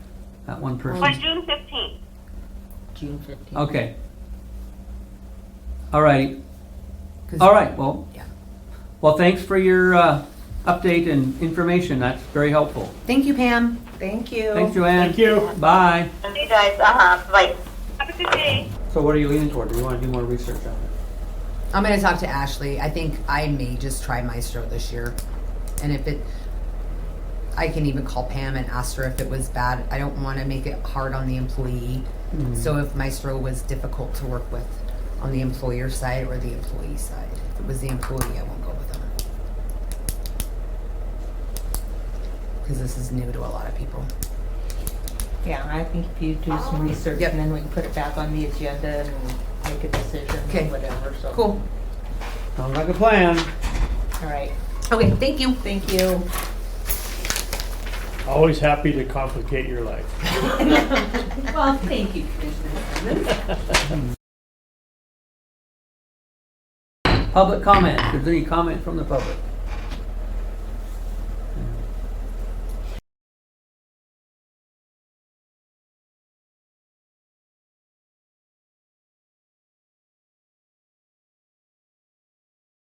that one Or person. June fifteenth. June fifteenth. Okay. All righty. All right, well, Yeah. well, thanks for your uh, update and information. That's very helpful. Thank you, Pam. Thank you. Thanks, Joanne. Thank you. Bye. You guys, uh-huh, bye. Have a good day. So what are you leaning toward? Do you want to do more research on it? I'm gonna talk to Ashley. I think I may just try Maestro this year, and if it, I can even call Pam and ask her if it was bad. I don't want to make it hard on the employee. So if Maestro was difficult to work with, on the employer side or the employee side, if it was the employee, I won't go with them. Because this is new to a lot of people. Yeah, I think if you do some research Yep. and then we can put it back on the agenda and make a decision, Okay. whatever, so. Cool. Sounds like a plan. All right, Okay. Thank you. thank you. Always happy to complicate your life. Well, thank you, Commissioner. Public comment. If there's any comment from the public.